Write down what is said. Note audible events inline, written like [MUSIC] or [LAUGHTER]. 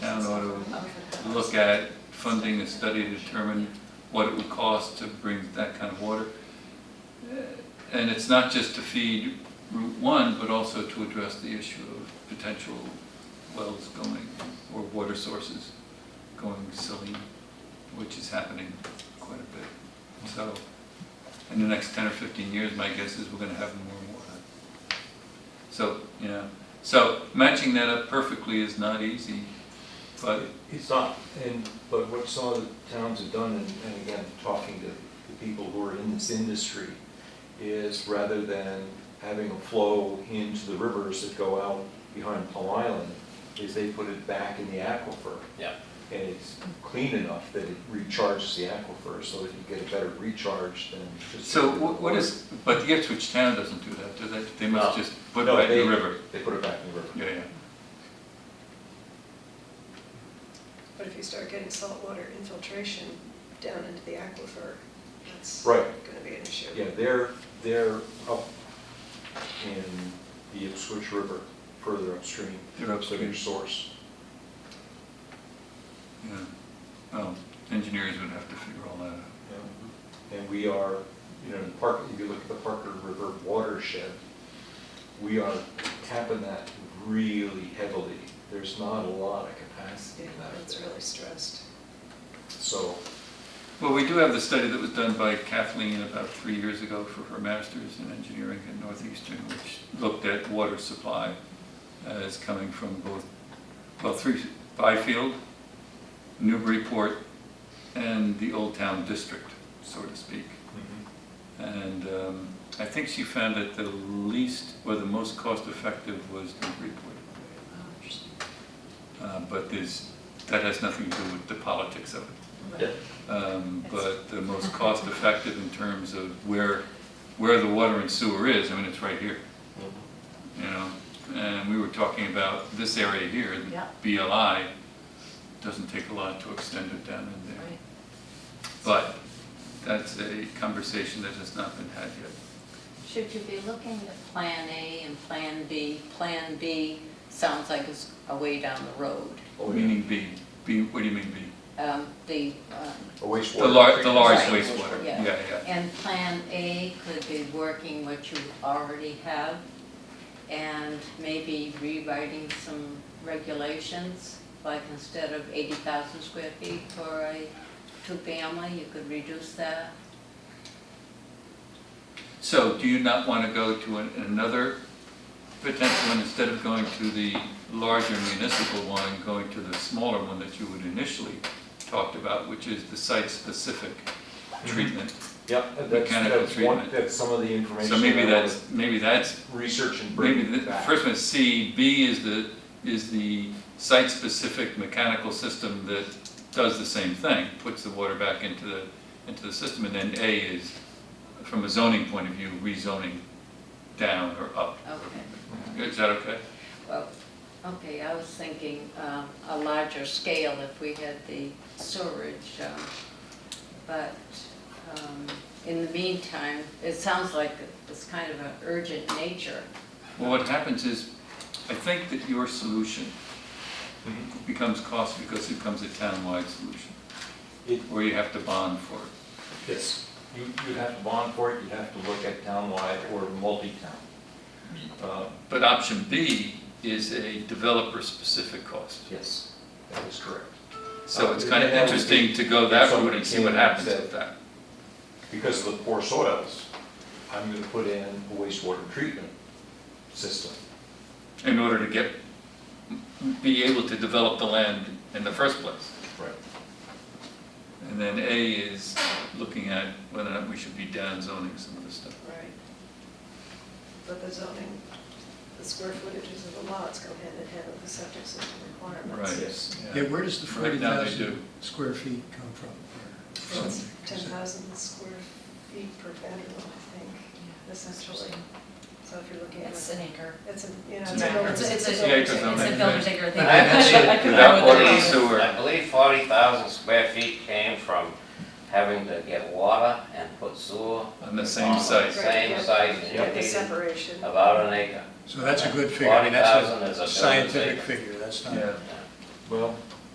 look at funding a study to determine what it would cost to bring that kind of water. And it's not just to feed Route One, but also to address the issue of potential wells going, or water sources going saline, which is happening quite a bit. So, in the next ten or fifteen years, my guess is we're gonna have more water. So, you know, so matching that up perfectly is not easy, but It's not, and, but what some of the towns have done, and, and again, talking to the people who are in this industry, is rather than having a flow into the rivers that go out behind Plum Island, is they put it back in the aquifer. Yeah. And it's clean enough that it recharges the aquifer, so that you get a better recharge than just. So wha- what is, but the Ipswich town doesn't do that, do they? They must No. just put No, it back in the they- river. They put it back in the river. Yeah, yeah. But if you start getting saltwater infiltration down into the aquifer, that's Right. gonna be an issue. Yeah, they're, they're up in the Ipswich River, further upstream. They're So upstream. your source. yeah. Well, engineers would have to figure all that out. Mm-hmm. yeah. And we are, you know, the Park, if you look at the Parker River watershed, we are tapping that really heavily. There's not a lot of capacity Yeah, in that. that's really stressed. So, Well, we do have the study that was done by Kathleen about three years ago for her master's in engineering at Northeastern, which looked at water supply as coming from both, well, three, Byfield, Newburyport, and the Old Town District, so to speak. mm-hmm, And um, I think she found that the least, or the most cost-effective was Newburyport. Uh, But there's, that has nothing to do with the politics of it. yeah, Um, But the most cost-effective in terms of where, where the water and sewer is, I mean, it's right here, mm-hmm. you know? And we were talking about this area here, Yeah. the BLI, doesn't take a lot to extend it down in there. Right. But that's a conversation that has not been had yet. Should you be looking at Plan A and Plan B? Plan B sounds like it's a way down the road. Oh, yeah. Meaning B, B, what do you mean B? Um, The, um, a wastewater. The large, the large Right. wastewater, yeah, Yeah. yeah. and Plan A could be working what you already have and maybe rewriting some regulations, like instead of 80,000 square feet for a two-family, you could reduce that. So do you not want to go to an- another potential one, instead of going to the larger municipal one, going to the smaller one that you would initially talked about, which is the site-specific treatment? Yep, that's, Mechanical that's one, treatment. that's some of the information. So maybe that I that's, maybe that's, would Research and maybe bring the it back. first one is C, B is the, is the site-specific mechanical system that does the same thing, puts the water back into the, into the system, and then A is, from a zoning point of view, rezoning down or up. Okay. Is that okay? Well, okay, I was thinking um, a larger scale if we had the sewerage, um, but um, in the meantime, it sounds like it's kind of an urgent nature. Well, what happens is, I think that your solution Mhm. becomes cost because it becomes a town-wide solution, It- where you have to bond for it. Yes, you, you'd have to bond for it, you'd have to look at townwide or multi-town. Uh, But option B is a developer-specific cost. Yes, that is correct. So it's Uh, kind of and that would be- interesting to go that if route somebody and see what came and happens said- with that. Because of the poor soils, I'm gonna put in a wastewater treatment system. In order to get, be able to develop the land in the first place. Right. And then A is looking at whether or not we should be down zoning some of this stuff. Right. But the zoning, the square footages of the lots go hand in hand with the septic system requirements. Right. Yes. Yeah, where does the Right now they 40,000 do. square feet come from? or So It's something? ten thousand square feet per bedroom, I think, essentially. So if you're looking at, It's an acre. it's a, you know, It's it's an a acre. building. It's a, it's a, Yeah, it's acres on a that. village acre thing. But I [LAUGHS] actually- I couldn't Without remember the water and name. sewer. I believe forty thousand square feet came from having to get water and put sewer. On the same on the site. Same site, and Get you the needed separation. about an acre. So that's a good figure, I mean, that's 40,000 is a a building scientific figure. figure, that's not, Yeah. Well,